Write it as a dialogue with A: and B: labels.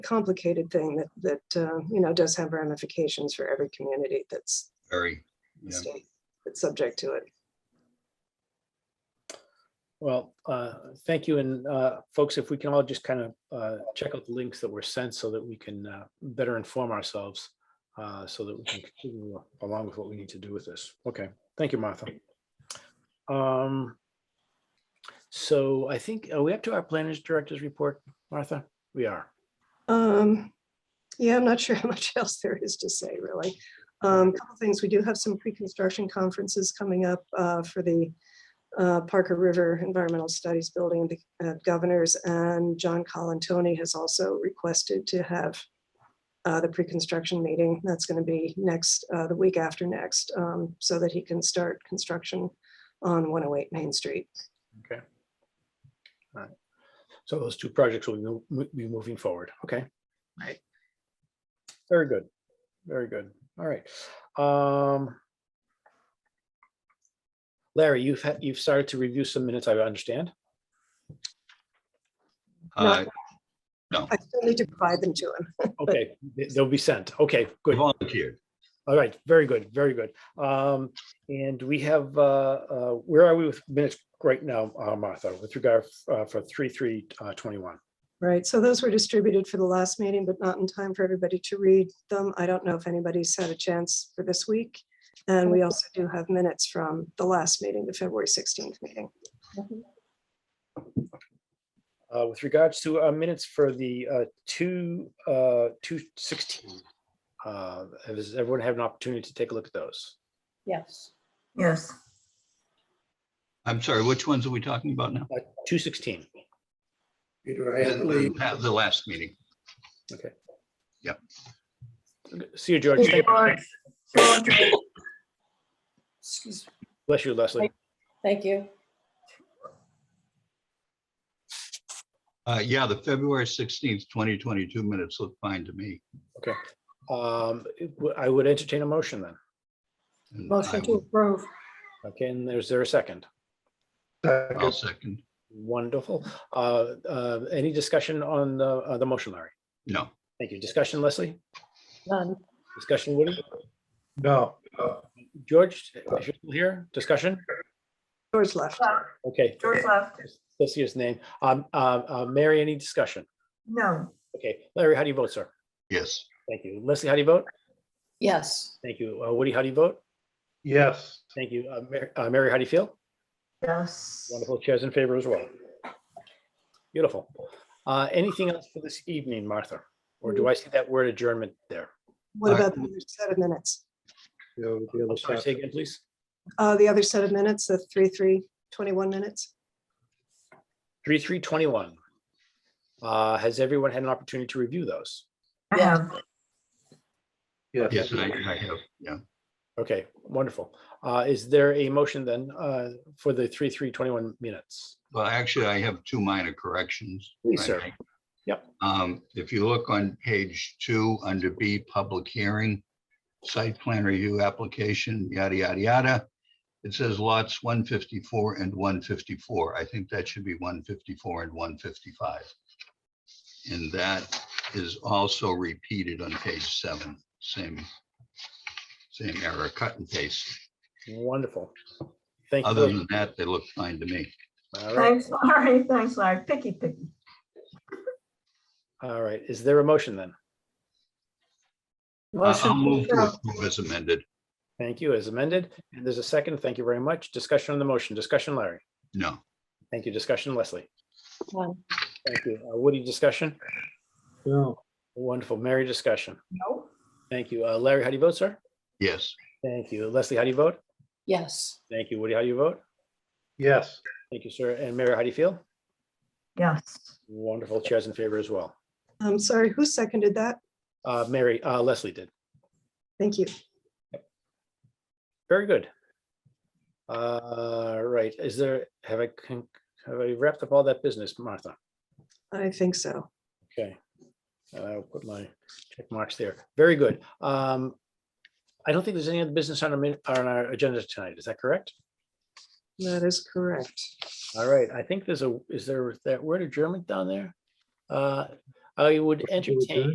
A: complicated thing that, that, uh, you know, does have ramifications for every community that's,
B: Very. Yeah.
A: state that's subject to it.
C: Well, uh, thank you. And uh, folks, if we can all just kind of uh, check out the links that were sent so that we can uh, better inform ourselves, uh, so that we can continue along with what we need to do with this. Okay, thank you, Martha. Um, So I think, are we up to our planners director's report, Martha? We are.
A: Um, yeah, I'm not sure how much else there is to say, really. Um, couple things, we do have some pre-construction conferences coming up, uh, for the, uh, Parker River Environmental Studies Building, the uh, governors, and John Colantoni has also requested to have, uh, the pre-construction meeting, that's gonna be next, uh, the week after next, um, so that he can start construction on one oh eight Main Street.
C: Okay. All right. So those two projects will mo- mo- be moving forward. Okay.
A: Right.
C: Very good. Very good. All right. Um, Larry, you've had, you've started to review some minutes, I understand.
B: Uh,
A: I still need to provide them to him.
C: Okay, they- they'll be sent. Okay, good.
B: Volunteered.
C: All right, very good, very good. Um, and we have, uh, uh, where are we with minutes right now, uh, Martha, with regard uh, for three, three, uh, twenty-one?
A: Right, so those were distributed for the last meeting, but not in time for everybody to read them. I don't know if anybody's had a chance for this week. And we also do have minutes from the last meeting, the February 16th meeting.
C: Uh, with regards to uh, minutes for the uh, two, uh, two sixteen. Uh, has everyone had an opportunity to take a look at those?
D: Yes.
E: Yes,
B: I'm sorry, which ones are we talking about now?
C: Two sixteen,
F: Peter, I have to
B: The
F: leave.
B: the- the last meeting.
C: okay.
B: Yep.
C: See you, George. Thank-
E: George. George,
D: Excuse me.
C: Bless you, Leslie.
D: Thank you.
B: Uh, yeah, the February sixteenth, twenty twenty-two minutes look fine to me.
C: Um, it w- I would entertain a motion then.
B: and I
D: Motion to
B: will-
D: approve.
C: Okay, and there's there a second?
B: I'll second.
C: Wonderful. Uh, uh, any discussion on the, uh, the motion, Larry?
B: No,
C: Thank you. Discussion, Leslie?
D: None.
C: Discussion, Woody?
F: No,
C: George, if you're still here, discussion?
A: George left.
E: left,
C: Okay,
E: George left.
C: let's see his name. Um, uh, uh, Mary, any discussion?
E: No,
C: Okay, Larry, how do you vote, sir?
B: yes,
C: Thank you. Leslie, how do you vote?
D: Yes.
C: Thank you. Uh, Woody, how do you vote?
F: yes,
C: Thank you. Uh, Mar- uh, Mary, how do you feel?
E: yes.
C: Wonderful. Chairs in favor as well. Beautiful. Uh, Anything else for this evening, Martha? Or do I see that word adjournment there?
A: What about the other set of minutes?
F: you know, the other
C: I'm sorry,
F: side.
C: say again, please.
A: Uh, The other set of minutes, the 3, 3, 21 minutes?
C: 3321. Uh, Has everyone had an opportunity to review those?
E: I have,
B: yes, and I I have, yeah.
C: Okay, wonderful. Uh, Is there a motion then uh, for the 3321 minutes?
B: Well, actually, I have two minor corrections.
C: Please,
B: I
C: sir.
B: make.
C: Yep.
B: Um, if you look on page two, under B, public hearing, site plan review application, yada, yada, yada. It says lots one fifty-four and one fifty-four. I think that should be one fifty-four and one fifty-five. And that is also repeated on page seven, same, same error, cut and paste.
C: Wonderful. Thank you.
B: Other
C: George.
B: than that, they look fine to me.
C: All right,
E: thanks, Larry, thanks, Larry, picky, picky.
C: all right. Is there a motion then?
B: I- Uh, I'll
D: Motion.
B: move
D: to
B: to
D: approve.
B: approve as amended.
C: Thank you, as amended. And there's a second. Thank you very much. Discussion on the motion. Discussion, Larry.
B: No.
C: Thank you. Discussion, Leslie.
D: None.
C: Thank you. Uh, Woody, discussion.
F: No,
C: Wonderful. Mary, discussion.
E: No,
C: Thank you. Uh, Larry, how do you vote, sir?
B: Yes,
C: Thank you. Leslie, how do you vote?
D: Yes.
C: Thank you. Woody, how do you vote?
F: yes.
C: Thank you, sir. And Mary, how do you feel?
E: yes,
C: Wonderful. Chairs in favor as well.
A: I'm Um, sorry, who seconded that?
C: Uh, Mary, uh, Leslie did.
A: Thank you.
C: Very good. Uh, right. Is there, have I, con- have I wrapped up all that business, Martha?
A: I think so.
C: Okay. Uh, I'll put my check marks there. Very good. Um, I don't think there's any other business on our, min- on our agenda tonight. Is that correct?
A: That is correct.
C: All right. I think there's a, is there that word adjournment down there? Uh, I would
F: to adjourn?
C: entertain